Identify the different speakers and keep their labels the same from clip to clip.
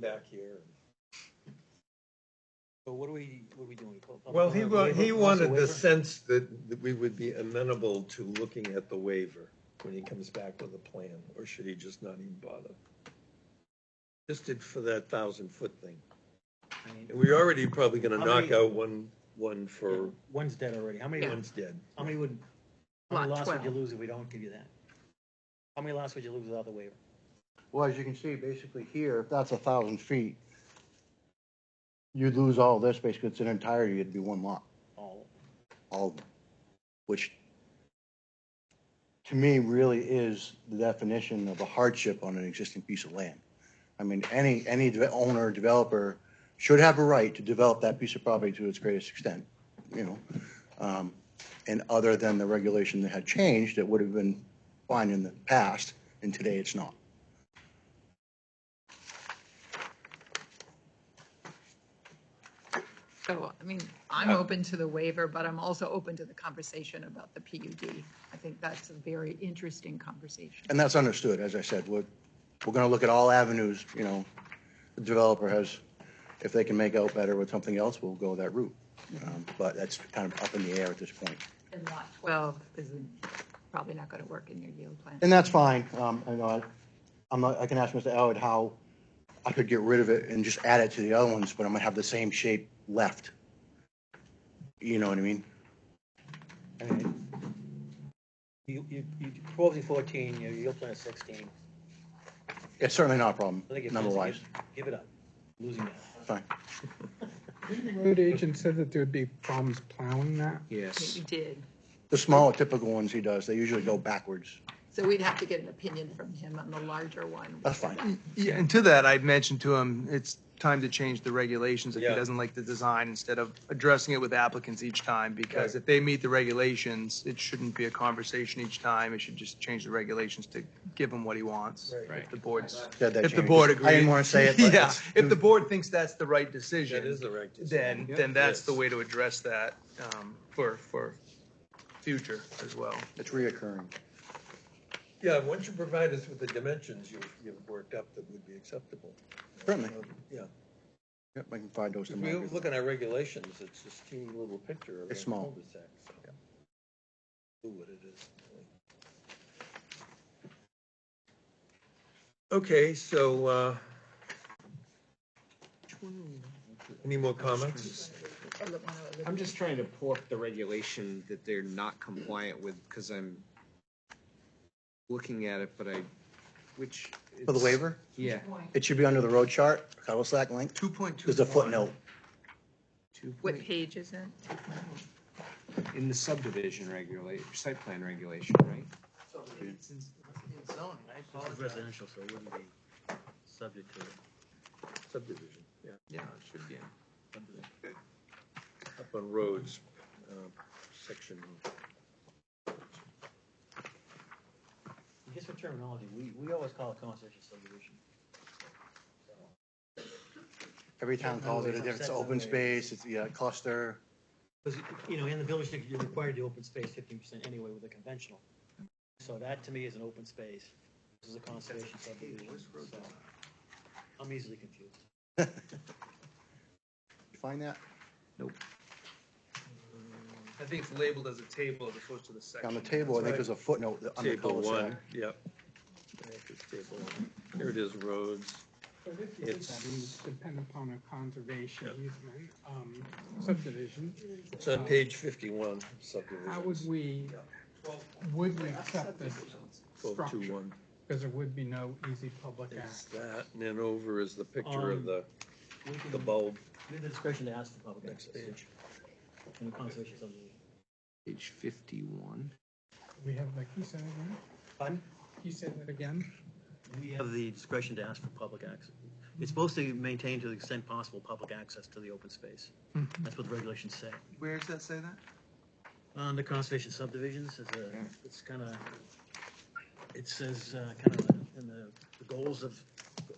Speaker 1: back here.
Speaker 2: So what are we, what are we doing? Pu- public
Speaker 1: Well, he,
Speaker 2: hearing,
Speaker 1: wa-
Speaker 2: waiver,
Speaker 1: he
Speaker 2: plus a
Speaker 1: wanted the
Speaker 2: waiver?
Speaker 1: sense that, that we would be amenable to looking at the waiver when he comes back with a plan, or should he just not even bother? Just did for that thousand foot thing.
Speaker 2: I mean,
Speaker 1: And we're already probably gonna
Speaker 2: How
Speaker 1: knock
Speaker 2: many-
Speaker 1: out one, one for,
Speaker 2: One's dead already. How many,
Speaker 1: one's dead.
Speaker 2: how many would, how many
Speaker 3: Lot
Speaker 2: lots would you
Speaker 3: 12.
Speaker 2: lose if we don't give you that? How many lots would you lose without the waiver?
Speaker 4: Well, as you can see, basically here, if that's a thousand feet, you'd lose all this, basically, it's an entirety, it'd be one lot,
Speaker 2: All,
Speaker 4: all of them, which to me really is the definition of a hardship on an existing piece of land. I mean, any, any de- owner, developer should have a right to develop that piece of property to its greatest extent, you know? Um, And other than the regulation that had changed, it would have been fine in the past, and today it's not.
Speaker 3: So, I mean, I'm open to the waiver, but I'm also open to the conversation about the PUD. I think that's a very interesting conversation.
Speaker 4: And that's understood, as I said, we're, we're gonna look at all avenues, you know, the developer has, if they can make out better with something else, we'll go that route. Um, But that's kind of up in the air at this point.
Speaker 3: And lot 12 is probably not going to work in your yield plan.
Speaker 4: And that's fine, um, I know, I- I'm not, I can ask Mr. Elliott how I could get rid of it and just add it to the other ones, but I'm gonna have the same shape left. You know what I mean?
Speaker 2: I mean, you, you, you, twelve to fourteen, your yield plan is sixteen.
Speaker 4: It's certainly not a problem,
Speaker 2: I think if
Speaker 4: number-wise,
Speaker 2: Give it up, losing that.
Speaker 4: fine.
Speaker 5: Road agent said that there'd be problems plowing that.
Speaker 3: We did.
Speaker 4: The smaller typical ones he does, they usually go backwards,
Speaker 3: So we'd have to get an opinion from him on the larger one.
Speaker 4: that's fine.
Speaker 6: Yeah, and to that, I mentioned to him, it's time to change the regulations if he
Speaker 1: Yeah.
Speaker 6: doesn't like the design, instead of addressing it with applicants each time, because
Speaker 1: Right.
Speaker 6: if they meet the regulations, it shouldn't be a conversation each time, it should just change the regulations to give him what he wants.
Speaker 1: Right.
Speaker 6: If the board's,
Speaker 4: Said that
Speaker 6: if the
Speaker 4: change.
Speaker 6: board agrees.
Speaker 4: I didn't wanna say it, but
Speaker 6: Yeah,
Speaker 4: it's-
Speaker 6: if the board thinks that's the right
Speaker 1: That is
Speaker 6: decision,
Speaker 1: the right decision.
Speaker 6: then, then that's the
Speaker 1: Yes.
Speaker 6: way to address that, um, for, for future as well.
Speaker 4: It's reoccurring.
Speaker 1: Yeah, once you provide us with the dimensions you've, you've worked up that would be acceptable.
Speaker 4: Certainly.
Speaker 1: Um, Yeah,
Speaker 4: Yep, I can find those
Speaker 1: if we
Speaker 4: tomorrow.
Speaker 1: look at our regulations, it's this teeny little picture of a
Speaker 4: It's small.
Speaker 1: cul-de-sac. so. Ooh, what it is. Okay, so, uh, any more comments?
Speaker 7: I'm just trying to pull up the regulation that they're not compliant with, because I'm looking at it, but I, which.
Speaker 4: For the
Speaker 7: it's-
Speaker 4: waiver,
Speaker 7: Yeah.
Speaker 4: it should be under the road chart, cul slack length.
Speaker 6: Two point two.
Speaker 4: There's a footnote.
Speaker 7: two
Speaker 3: What
Speaker 7: point-
Speaker 3: page is it?
Speaker 7: In the subdivision regulate, site plan regulation, right?
Speaker 2: Residential, so it wouldn't be subject to it.
Speaker 1: Subdivision, yeah,
Speaker 7: Yeah, it should be.
Speaker 1: up on roads, uh, section.
Speaker 2: Just for terminology, we, we always call it conservation subdivision.
Speaker 4: Every town calls it, a different- it's open space, it's, yeah, cluster.
Speaker 2: Because, you know, in the village, district, you're required to open space fifteen percent anyway with a conventional. So that to me is an open space. This is a conservation subdivision, so I'm easily confused.
Speaker 4: You Find that
Speaker 6: I think it's labeled as a table as opposed to the section.
Speaker 4: on the table, I think
Speaker 1: right.
Speaker 4: there's a footnote that- on the
Speaker 1: Table
Speaker 4: cul-de-sac.
Speaker 1: one, yep. I think it's table one. Here it is, roads.
Speaker 5: But if you did that, it would depend upon a conservation easement, um, subdivision,
Speaker 1: It's on page fifty-one,
Speaker 5: how
Speaker 1: subdivision,
Speaker 5: would we, would we accept this
Speaker 1: twelve two
Speaker 5: structure?
Speaker 1: one.
Speaker 5: Because there would be no easy public
Speaker 1: Is
Speaker 5: access.
Speaker 1: that, and then over is the picture of
Speaker 2: Um,
Speaker 1: the,
Speaker 2: We can-
Speaker 1: the bulb,
Speaker 2: We have the discretion to ask for public
Speaker 1: next
Speaker 2: access
Speaker 1: page.
Speaker 2: in the conservation subdivision.
Speaker 7: Page fifty-one.
Speaker 5: We have, like, you said again,
Speaker 2: Pardon?
Speaker 5: you said it again,
Speaker 2: We have the discretion to ask for public access. It's supposed to maintain to the extent possible public access to the open space. That's what the regulations say.
Speaker 6: Where does that say that?
Speaker 2: On the conservation subdivisions, is a, it's kind of, it says, uh, kind of in the, the goals of,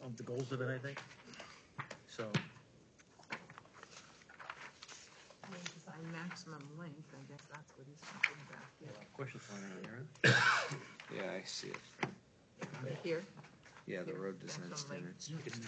Speaker 2: of the goals of it, I think. So,
Speaker 3: Design maximum length, I guess that's what he's talking about.
Speaker 2: question for you, Aaron.
Speaker 7: Yeah, I see it.
Speaker 3: Here?
Speaker 7: Yeah, the road design standards.
Speaker 2: It's